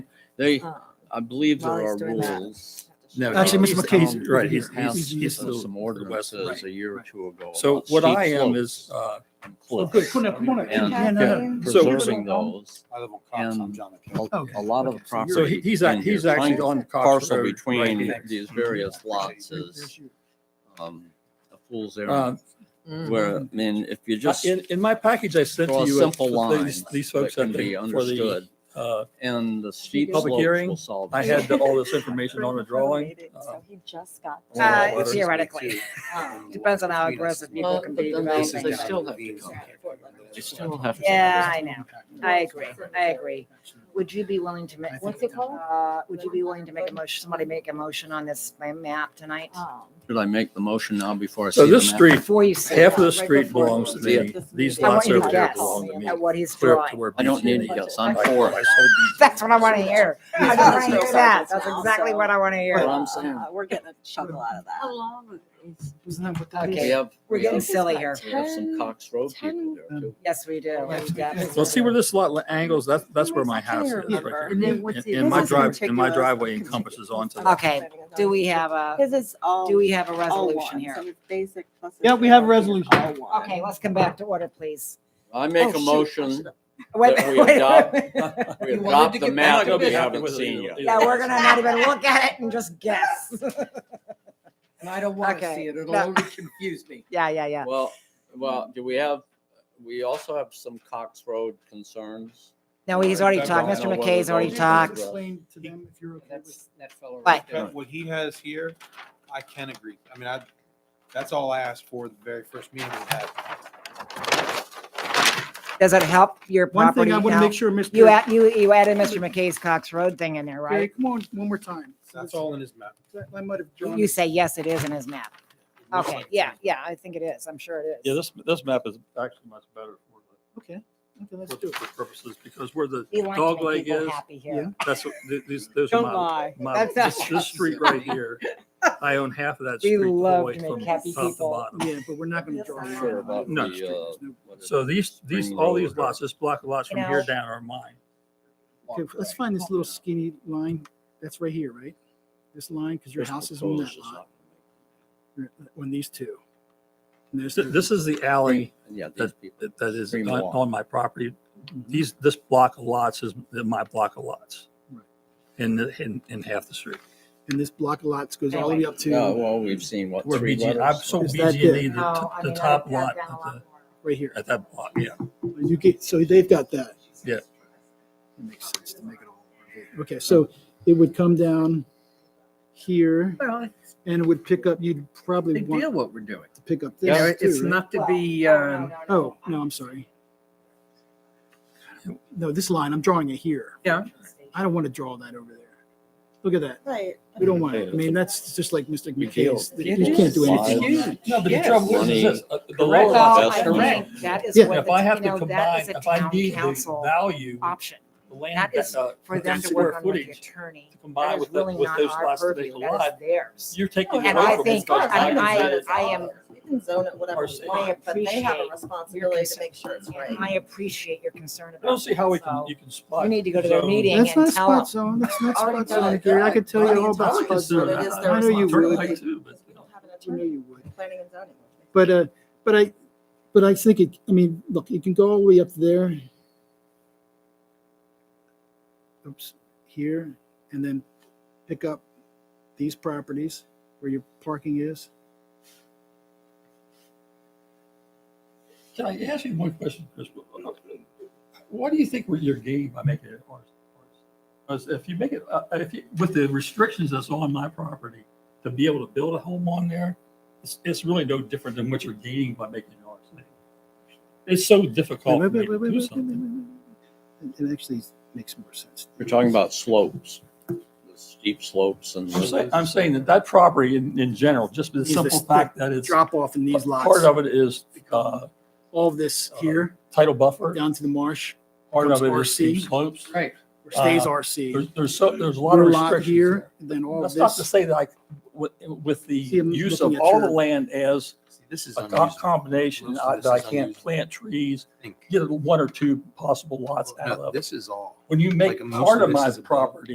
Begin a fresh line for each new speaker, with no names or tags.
They,
um,
I believe there
While he's
are
doing that.
rules.
No,
Actually,
he's-
Mr. McKay's-
um,
right,
His
he's-
house
he's- he's
of
the-
some
right,
ordinances a year or
right.
two ago.
So
about
what
steep
I am is,
slopes
uh,
and
Oh,
cliffs
good, come on, come on.
And-
Yeah, no, no.
and
So-
Preserving those.
I live on Cox, I'm
And
John
A
McKay.
Okay,
a lot of
okay.
the
So
so he-
property.
he's,
in
act-
here,
he's
trying
actually
to
on Cox
Parcel
Road. right
between
here.
these various lots is, um, a fool's errand.
Um,
Mm-hmm.
Where, I mean, if you just
In, in my package I sent
draw
to
a
you.
simple
these-
line
These
that
folks, I
can be
think, for the,
understood,
uh,
and the steep
Public
slopes
hearing,
will solve.
I
it.
had the- all this information on the drawing. uh,
So he just got. Um,
Well,
Uh,
what is it
theoretically.
to-
Depends on how aggressive people
Well,
can
but
be
then
developing
they-
things.
they still have to come.
They still have to-
Yeah, I know. I agree. I agree. Would you be willing to make,
What's it called?
uh, would you be willing to make a motion, somebody make a motion on this map tonight?
Um,
Should I make the motion now before I see
So
the
this
map?
street,
Before you say
half of the
that,
street belongs to me. These
I want
lots
you to
over here
guess
belong to me.
at what he's
Clear up to
drawing.
where
I don't need to
BCD
guess. I'm
I-
for
I
it.
sold
That's what I want to hear. I just want to hear that. That's exactly what I want to
Well,
hear.
I'm saying-
uh, We're getting a chuckle out of that.
long is?
We
Okay,
have,
we're
we
getting
have
silly here.
we have some Cox Road people there too.
Yes, we do.
these. Well, see where this lot li- angles, that's, that's where my house is, right
remember.
there.
And then what's
And
the-
and my
This is
drive, and my
ridiculous.
driveway encompasses onto that.
Okay, do we have a,
His is all.
do we have a
all
resolution
ones,
here?
and it's Basic plus.
Yeah, we have resolution.
All one.
Okay, let's come back to order, please.
I
Oh,
make
shoot,
a
I
motion,
should've-
Wait,
That we
wait, wait.
adopt- we
You wanted to
adopt the
get-
map
I'm not
that
gonna
we
be happy
haven't
with it
seen
either.
yet.
Yeah, we're gonna not even look at it and just guess.
And I don't want to
Okay.
see it. It'll
No.
only confuse me.
Yeah, yeah, yeah.
Well, well, do we have, we also have some Cox Road concerns.
No, he's already
I
talked.
don't
Mr.
know whether
McKay's already
those-
talked.
Explain to them if you're okay with
That's, that fellow. right
Right.
there.
That What he has here, I can agree. I mean, I, that's all I asked for the very first meeting we had.
Does it help your
One
property
thing I want to
now?
make sure, Mr.
You add, you, you added Mr. McKay's Cox Road thing in there,
Okay,
right?
come on, one more time.
That's all in his map.
I might have drawn.
You say, yes, it is in his map.
It looks
Okay,
like-
yeah, yeah, I think it is. I'm sure it
Yeah,
is.
this, this map is actually much better for
Okay, okay, let's
the,
do it.
for purposes, because where the
We like to
dog
make
leg
people
is,
happy
Yeah.
here.
that's, what- th- these, those are
Don't
my,
lie.
my,
That's
this,
not-
this street right here, I own half of that
We
street the whole
love
way
to make
from top
happy
to
people.
bottom.
Oh, Yeah, but we're not going to
Yes,
draw.
I
a
am.
line
Sure about
on
the,
street.
uh,
There's
what is
So
it?
these, these,
Spring
all these
Road.
lots, this block of lots
You
from
know-
here down are mine.
no- Okay, let's find this little skinny line. That's right here, right? This line, because your
This
house is on that
proposed is
lot, uh,
not-
on these two. And there's
Th- This is the alley
Yeah, these people,
that that is
Green
on,
Walk.
on my property. These, this block of lots is my block of lots.
Right.
In, the- in, in half the street.
and this block of lots goes all the way up
no,
to
well, we've seen what,
Where
three
BG,
letters?
I've sold
Is that
BG and E,
it?
the,
No, Oh,
t-
I
the
mean, I
top
would have
lot
done a
at
lot
the,
more.
right here.
at that block, yeah.
You get, so they've got that.
Yeah.
It makes sense to make it all. Okay, so it would come down here
Well,
and it would pick up, you'd
they
probably
deal
want
what we're doing.
to pick up
You know,
this
it- it's
too, right?
not to be,
Well, no,
um,
no, no,
Oh,
no.
no, I'm sorry. No, this line, I'm drawing it here.
yeah,
I don't want to draw that over there. Look at that.
Right.
We don't want it. I mean, that's just like Mr. McKay's.
It
You can't do
is.
anything.
It's
on that.
No, but the
Yes.
trouble is, is this, uh, the
Correct.
lower
Well,
So
lot,
I
that's
that's
correct.
think that is
Yeah.
what,
If I
the-
have
you
to
know, that
combine,
is a
if I
town
need the
council
value,
option.
the land,
That is
uh,
for
with
them
the
to work
square
on with the
footage,
attorney.
to
That
combine
is
with, the-
really
with
not
those
our
lots to make
purview,
a
that
lot,
is theirs.
you're taking. away
And Oh, I
from
think,
those
I mean, I,
guys.
I am,
You can zone it whatever you want, but they have a responsibility to make sure it's right.
I appreciate your concern
I
about.
don't see how we
that,
can,
so
you can spot.
You need to go to their
zone.
meeting
That's
and
not
tell 'em.
spot zone. That's not
Already
spot
done
zone,
it.
Gary. I could tell you all
I
about
would
spot
assume
zone.
it is their
I know you
Turn
would.
light too, but
You don't have an
I know
attorney,
you would.
planning and zoning.
But, uh, but I, but I think it, I mean, look, you can go all the way up there. Oops, here, and then pick up these properties where your parking is.
Can I ask you one question, Chris? What do you think you're gaining by making it ours? Because if you make it, uh, if you, with the restrictions that's on my property, to be able to build a home on there, it's, it's really no different than what you're gaining by making it ours. It's so difficult for
Wait,
me
wait, wait, wait,
to do
wait, wait,
something.
wait, wait. It actually makes more sense.
We're talking about slopes, the steep slopes and.
I'm saying, I'm saying that that property in, in general, just the
Is
simple
this-
fact that it's,
Drop off in these
part
lots,
of it is, uh,
all of this here,
title buffer,
down to the marsh,
part of it is
becomes
steep
RC.
slopes.
right.
where stays
Uh,
RC.
There's, there's so, there's a lot of
Your lot
restrictions there.
here, and then all of
That's not to
this.
say that I, with, with the
See, I'm
use
looking
of
at
all the
your-
land as
See, This is
a co-
unusual.
combination,
Most
I-
of
that I
this is
can't
unusual.
plant trees,
I think.
get one or two possible lots out
No,
of. it.
This is all.
When you
like,
make
most
part
of
of
this
my
is above.
property